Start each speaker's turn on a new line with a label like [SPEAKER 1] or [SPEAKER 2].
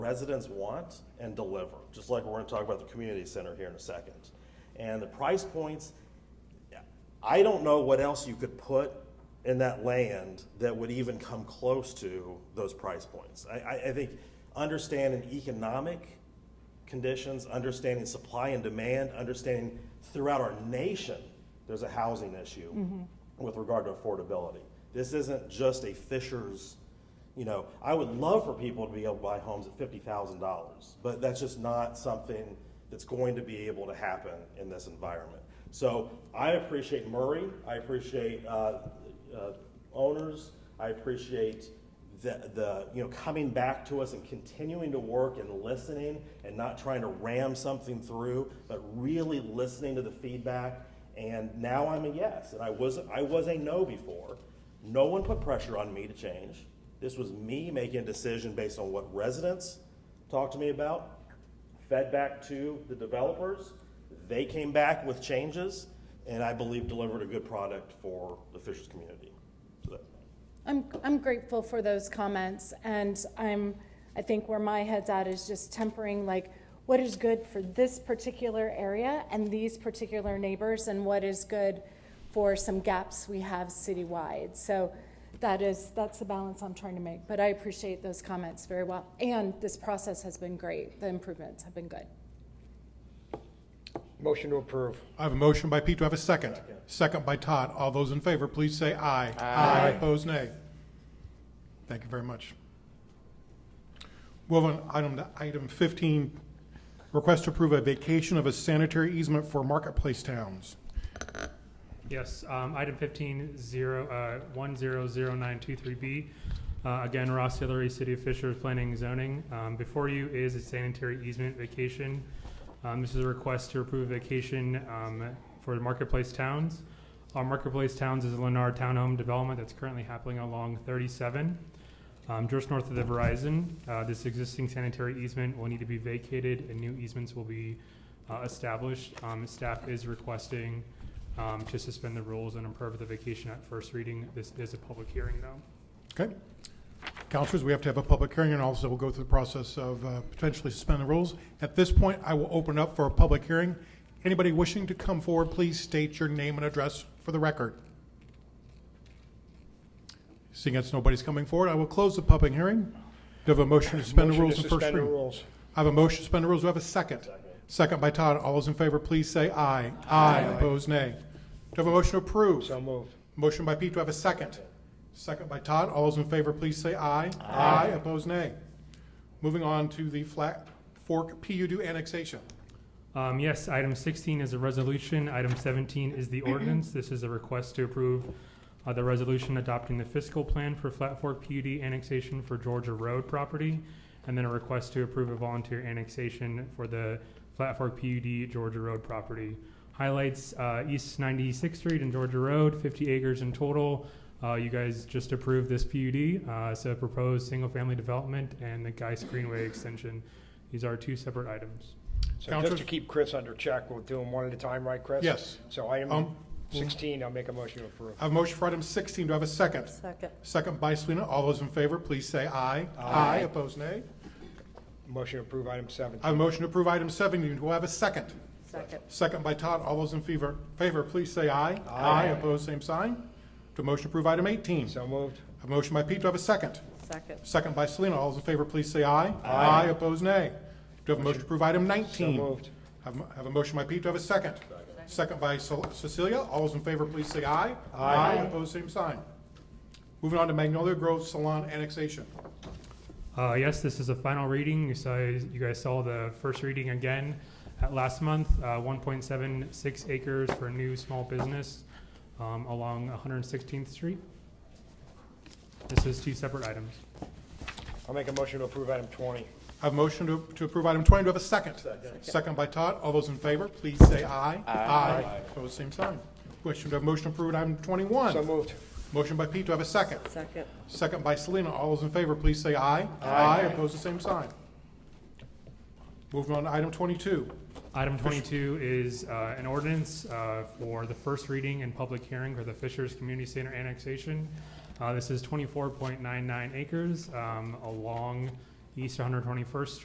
[SPEAKER 1] residents want and deliver, just like we're gonna talk about the community center here in a second. And the price points, I don't know what else you could put in that land that would even come close to those price points. I, I, I think understanding economic conditions, understanding supply and demand, understanding throughout our nation, there's a housing issue with regard to affordability. This isn't just a Fisher's, you know, I would love for people to be able to buy homes at fifty thousand dollars, but that's just not something that's going to be able to happen in this environment. So I appreciate Murray, I appreciate, uh, uh, owners, I appreciate the, the, you know, coming back to us and continuing to work and listening and not trying to ram something through, but really listening to the feedback. And now I'm a yes, and I was, I was a no before. No one put pressure on me to change. This was me making a decision based on what residents talked to me about, fed back to the developers. They came back with changes, and I believe delivered a good product for the Fishers community. So that-
[SPEAKER 2] I'm, I'm grateful for those comments, and I'm, I think where my head's at is just tempering, like, what is good for this particular area and these particular neighbors, and what is good for some gaps we have citywide. So that is, that's the balance I'm trying to make, but I appreciate those comments very well. And this process has been great, the improvements have been good.
[SPEAKER 3] Motion to approve.
[SPEAKER 4] I have a motion by Pete, do I have a second? Second by Todd. All those in favor, please say aye. Aye. Opposed, nay. Thank you very much. Move on item to item 15, request to approve a vacation of a sanitary easement for marketplace towns.
[SPEAKER 5] Yes, um, item fifteen zero, uh, one zero zero nine two three B. Uh, again, Ross Hillary, City of Fishers Planning and Zoning. Um, before you is a sanitary easement vacation. Um, this is a request to approve vacation, um, for Marketplace Towns. Our Marketplace Towns is a Lennar Townhome development that's currently happening along thirty-seven, um, just north of the Verizon. Uh, this existing sanitary easement will need to be vacated and new easements will be, uh, established. Um, staff is requesting, um, to suspend the rules and approve the vacation at first reading. This is a public hearing, though.
[SPEAKER 4] Okay? Counselors, we have to have a public hearing, and also we'll go through the process of uh, potentially suspend the rules. At this point, I will open up for a public hearing. Anybody wishing to come forward, please state your name and address for the record. Seeing as nobody's coming forward, I will close the public hearing. Do you have a motion to suspend the
[SPEAKER 3] Motion
[SPEAKER 4] rules
[SPEAKER 3] to
[SPEAKER 4] and first
[SPEAKER 3] suspend the
[SPEAKER 4] reading?
[SPEAKER 3] rules.
[SPEAKER 4] I have a motion to suspend the rules, do I have a second? Second by Todd, all those in favor, please say aye. Aye. Opposed, nay. Do I have a motion to approve?
[SPEAKER 3] So moved.
[SPEAKER 4] Motion by Pete, do I have a second? Second by Todd, all those in favor, please say aye. Aye. Opposed, nay. Moving on to the Flat Fork PUD annexation.
[SPEAKER 5] Um, yes, item sixteen is a resolution. Item seventeen is the ordinance. This is a request to approve uh, the resolution adopting the fiscal plan for Flat Fork PUD annexation for Georgia Road property, and then a request to approve a volunteer annexation for the Flat Fork PUD Georgia Road property. Highlights uh, East Ninety-Sixth Street and Georgia Road, fifty acres in total. Uh, you guys just approved this PUD, uh, so proposed single-family development and the Geis Greenway extension. These are two separate items.
[SPEAKER 3] So just
[SPEAKER 4] Counselors?
[SPEAKER 3] to keep Chris under check, we'll do them one at a time, right, Chris?
[SPEAKER 4] Yes.
[SPEAKER 3] So item
[SPEAKER 4] Um,
[SPEAKER 3] sixteen, I'll make a motion to approve.
[SPEAKER 4] I have a motion for item sixteen, do I have a second?
[SPEAKER 6] Second.
[SPEAKER 4] Second by Selena, all those in favor, please say aye.
[SPEAKER 3] Aye.
[SPEAKER 4] Opposed, nay.
[SPEAKER 3] Motion to approve item seventeen.
[SPEAKER 4] I have a motion to approve item seventeen, do I have a second?
[SPEAKER 6] Second.
[SPEAKER 4] Second by Todd, all those in favor, favor, please say aye. Aye. Opposed, same sign. Do I motion to approve item eighteen?
[SPEAKER 3] So moved.
[SPEAKER 4] A motion by Pete, do I have a second?
[SPEAKER 6] Second.
[SPEAKER 4] Second by Selena. All those in favor, please say aye. Aye. Opposed, nay. Do I have a motion to approve item 19?
[SPEAKER 3] So moved.
[SPEAKER 4] Have a- have a motion by Pete, do I have a second? Second by Ce- Cecilia. All those in favor, please say aye. Aye. Opposed, same sign. Moving on to Magnolia Grove Salon annexation.
[SPEAKER 5] Uh, yes, this is a final reading. You saw, you guys saw the first reading again at last month, uh, one point seven six acres for a new small business, um, along one hundred and sixteenth street. This is two separate items.
[SPEAKER 3] I'll make a motion to approve item twenty.
[SPEAKER 4] I Have a motion to to approve item 20. Do I have a second? Second. by Todd. All those in favor, please say aye. Aye. Opposed, same sign. Question, do I have a motion to approve item 21?
[SPEAKER 3] So moved.
[SPEAKER 4] Motion by Pete, do I have a second?
[SPEAKER 6] Second.
[SPEAKER 4] Second by Selena. All those in favor, please say aye. Aye. Opposed, the same sign. Moving on to item twenty-two.
[SPEAKER 5] Item twenty-two is, uh, an ordinance, uh, for the first reading and public hearing for the Fishers Community Center annexation. Uh, this is twenty-four point nine nine acres, um, along East 121st